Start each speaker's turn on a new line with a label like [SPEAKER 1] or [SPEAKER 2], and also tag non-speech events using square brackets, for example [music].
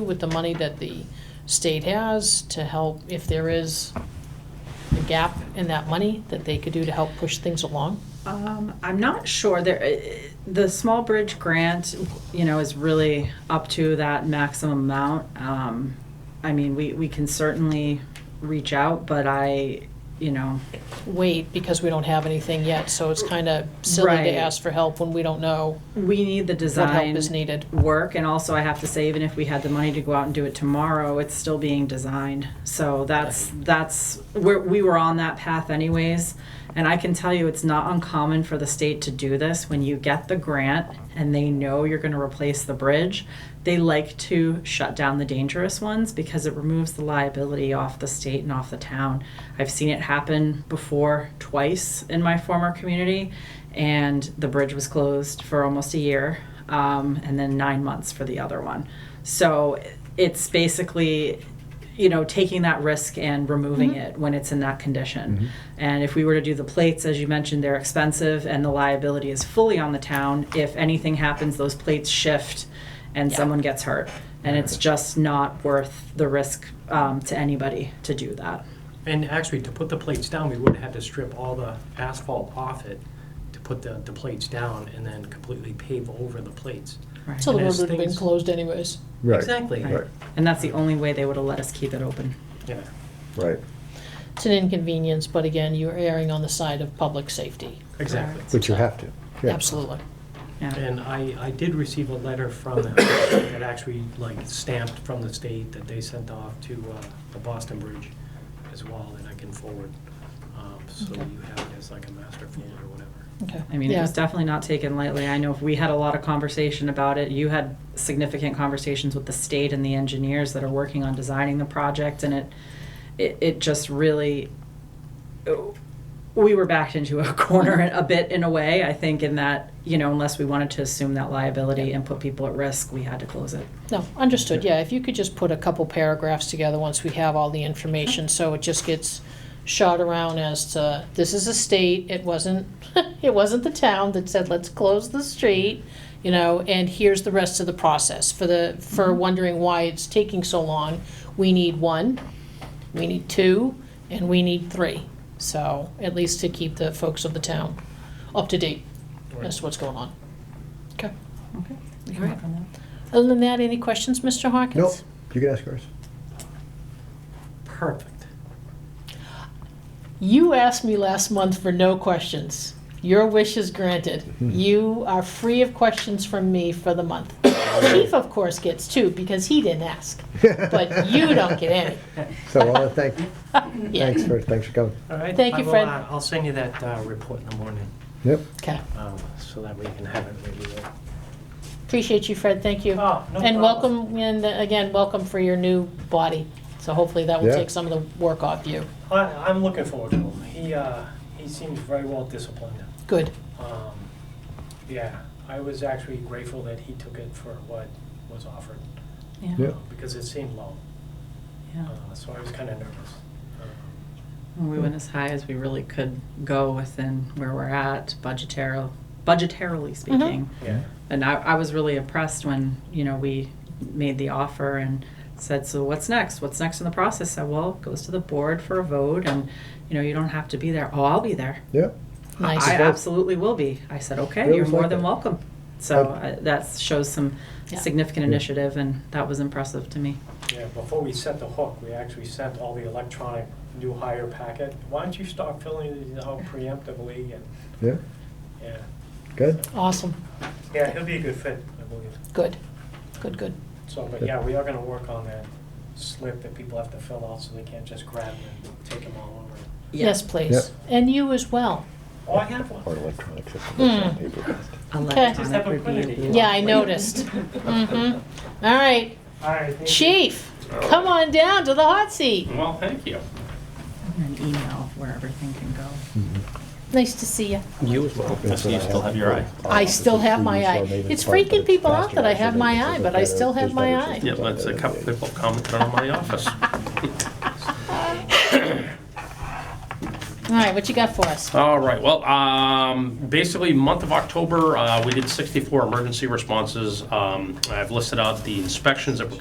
[SPEAKER 1] with the money that the state has to help, if there is a gap in that money, that they could do to help push things along?
[SPEAKER 2] Um, I'm not sure. There, eh, the small bridge grant, you know, is really up to that maximum amount. Um, I mean, we, we can certainly reach out, but I, you know,
[SPEAKER 1] Wait, because we don't have anything yet, so it's kind of silly
[SPEAKER 2] Right.
[SPEAKER 1] to ask for help when we don't know
[SPEAKER 2] we need the
[SPEAKER 1] what help
[SPEAKER 2] design
[SPEAKER 1] is needed.
[SPEAKER 2] work, and also I have to say, even if we had the money to go out and do it tomorrow, it's still being designed. So that's that's where we were on that path anyways. And I can tell you, it's not uncommon for the state to do this when you get the grant and they know you're going to replace the bridge. They like to shut down the dangerous ones because it removes the liability off the state and off the town. I've seen it happen before twice in my former community, and the bridge was closed for almost a year um, and then nine months for the other one. So it's basically, you know, taking that risk and removing it when it's in that condition. And if we were to do the plates, as you mentioned, they're expensive and the liability is fully on the town. If anything happens, those plates shift and
[SPEAKER 1] Yeah.
[SPEAKER 2] someone gets hurt. And it's just not worth the risk um, to anybody to do that.
[SPEAKER 3] And actually, to put the plates down, we would have had to strip all the asphalt off it to put the, the plates down and then completely pave over the plates.
[SPEAKER 2] Right.
[SPEAKER 1] So the
[SPEAKER 3] And
[SPEAKER 1] road
[SPEAKER 3] as
[SPEAKER 1] would have been
[SPEAKER 3] things-
[SPEAKER 1] closed anyways.
[SPEAKER 4] Right.
[SPEAKER 3] Exactly.
[SPEAKER 4] Right,
[SPEAKER 2] and that's the only way they would have let us keep it open.
[SPEAKER 3] Yeah.
[SPEAKER 4] right.
[SPEAKER 1] It's an inconvenience, but again, you're erring on the side of public safety.
[SPEAKER 3] Exactly.
[SPEAKER 4] But you have to. yeah.
[SPEAKER 1] Absolutely.
[SPEAKER 2] Yeah.
[SPEAKER 3] And I, I did receive a letter from them that actually like stamped from the state that they sent off to uh, the Boston Bridge as well that I can forward. Um, So
[SPEAKER 1] Okay.
[SPEAKER 3] you have it as like a master folder or whatever.
[SPEAKER 1] Okay.
[SPEAKER 2] I mean, it
[SPEAKER 1] Yeah.
[SPEAKER 2] was definitely not taken lightly. I know if we had a lot of conversation about it. You had significant conversations with the state and the engineers that are working on designing the project, and it it, it just really we were backed into a [laughs] corner a bit in a way. I think in that you know, unless we wanted to assume that liability and put people at risk, we had to close it.
[SPEAKER 1] No, understood, yeah, if you could just put a couple paragraphs together once we have all the information, so it just gets shot around as to, this is a state, it wasn't, [laughs] it wasn't the town that said, let's close the street, you know, and here's the rest of the process, for the, for wondering why it's taking so long, we need one, we need two, and we need three, so, at least to keep the folks of the town up to date as to what's going on. Okay,
[SPEAKER 2] Okay.
[SPEAKER 1] can work other than that, any questions, Mr. Hawkins?
[SPEAKER 4] Nope, you can ask yours.
[SPEAKER 3] Perfect.
[SPEAKER 1] You asked me last month for no questions. Your wish is granted.
[SPEAKER 4] Hmm.
[SPEAKER 1] You are free of questions from me for the month. Chief, of course, gets two because he didn't ask, [laughs] but you don't get any.
[SPEAKER 4] [laughs] So I want to thank,
[SPEAKER 1] [laughs] Yeah.
[SPEAKER 4] thanks for, thanks for coming.
[SPEAKER 3] All right.
[SPEAKER 1] Thank
[SPEAKER 3] I
[SPEAKER 1] you,
[SPEAKER 3] will,
[SPEAKER 1] Fred.
[SPEAKER 3] uh, I'll send you that uh, report in the morning
[SPEAKER 4] Yep,
[SPEAKER 1] Okay.
[SPEAKER 3] um, so that we can have it ready. to-
[SPEAKER 1] Appreciate you, Fred. Thank you.
[SPEAKER 3] Oh, no
[SPEAKER 1] and
[SPEAKER 3] problem.
[SPEAKER 1] welcome, and uh, again, welcome for your new body. So hopefully that will
[SPEAKER 4] Yeah.
[SPEAKER 1] take some of the work off you.
[SPEAKER 3] I, I'm looking forward to him. He, uh, he seems very well disciplined.
[SPEAKER 1] Good.
[SPEAKER 3] Um, yeah, I was actually grateful that he took it for what was offered
[SPEAKER 2] Yeah.
[SPEAKER 4] Yeah.
[SPEAKER 3] uh, because it seemed low.
[SPEAKER 2] yeah.
[SPEAKER 3] Uh, so I was kind of nervous. Um,
[SPEAKER 2] We went as high as we really could go within where we're at, budgetarily, budgetarily speaking.
[SPEAKER 3] yeah.
[SPEAKER 2] And I, I was really impressed when, you know, we made the offer and said, so what's next? What's next in the process? I said, well, it goes to the board for a vote and, you know, you don't have to be there. Oh, I'll be there.
[SPEAKER 4] yep.
[SPEAKER 1] Nice.
[SPEAKER 2] I absolutely will be. I said, okay,
[SPEAKER 4] Really
[SPEAKER 2] you're more
[SPEAKER 4] like
[SPEAKER 2] than
[SPEAKER 4] it.
[SPEAKER 2] welcome. So I- that shows some
[SPEAKER 1] Yeah.
[SPEAKER 2] significant
[SPEAKER 4] Yeah.
[SPEAKER 2] initiative and that was impressive to me.
[SPEAKER 3] Yeah, before we set the hook, we actually sent all the electronic new hire packet. Why don't you start filling these out preemptively? And
[SPEAKER 4] Yeah,
[SPEAKER 3] yeah,
[SPEAKER 4] good.
[SPEAKER 1] Awesome.
[SPEAKER 3] yeah, he'll be a good fit, I believe.
[SPEAKER 1] Good. Good, good.
[SPEAKER 3] So, but yeah, we are going to work on that slip that people have to fill out so they can't just grab it and take them all over.
[SPEAKER 1] Yes, please. And you as well.
[SPEAKER 3] Oh, I have one.
[SPEAKER 4] Or electronic system,
[SPEAKER 1] Mm.
[SPEAKER 4] not paper-based.
[SPEAKER 2] Electronic
[SPEAKER 1] Just
[SPEAKER 3] have a
[SPEAKER 2] would be
[SPEAKER 3] clinic.
[SPEAKER 2] beautiful.
[SPEAKER 1] Yeah, I noticed. Mhm. All right.
[SPEAKER 3] All right. thank you.
[SPEAKER 1] Chief, come on down to the hot seat.
[SPEAKER 5] Well, thank you.
[SPEAKER 2] [laughs] An email where everything can go.
[SPEAKER 1] Nice to see you.
[SPEAKER 5] You as well.
[SPEAKER 4] That's what
[SPEAKER 5] you
[SPEAKER 4] I
[SPEAKER 5] still have your eye.
[SPEAKER 1] I still have my eye.
[SPEAKER 4] Offices,
[SPEAKER 1] It's
[SPEAKER 4] please,
[SPEAKER 1] freaking people
[SPEAKER 4] I'll
[SPEAKER 1] out that I have my eye,
[SPEAKER 4] make it
[SPEAKER 1] but I still have my
[SPEAKER 4] faster.
[SPEAKER 1] eye.
[SPEAKER 5] Yeah, uh, that's a couple people commented on my [laughs] office.
[SPEAKER 1] All right, what you got for us?
[SPEAKER 5] All right, well, um, basically, month of October, uh, we did 64 emergency responses. Um, I've listed out the inspections that were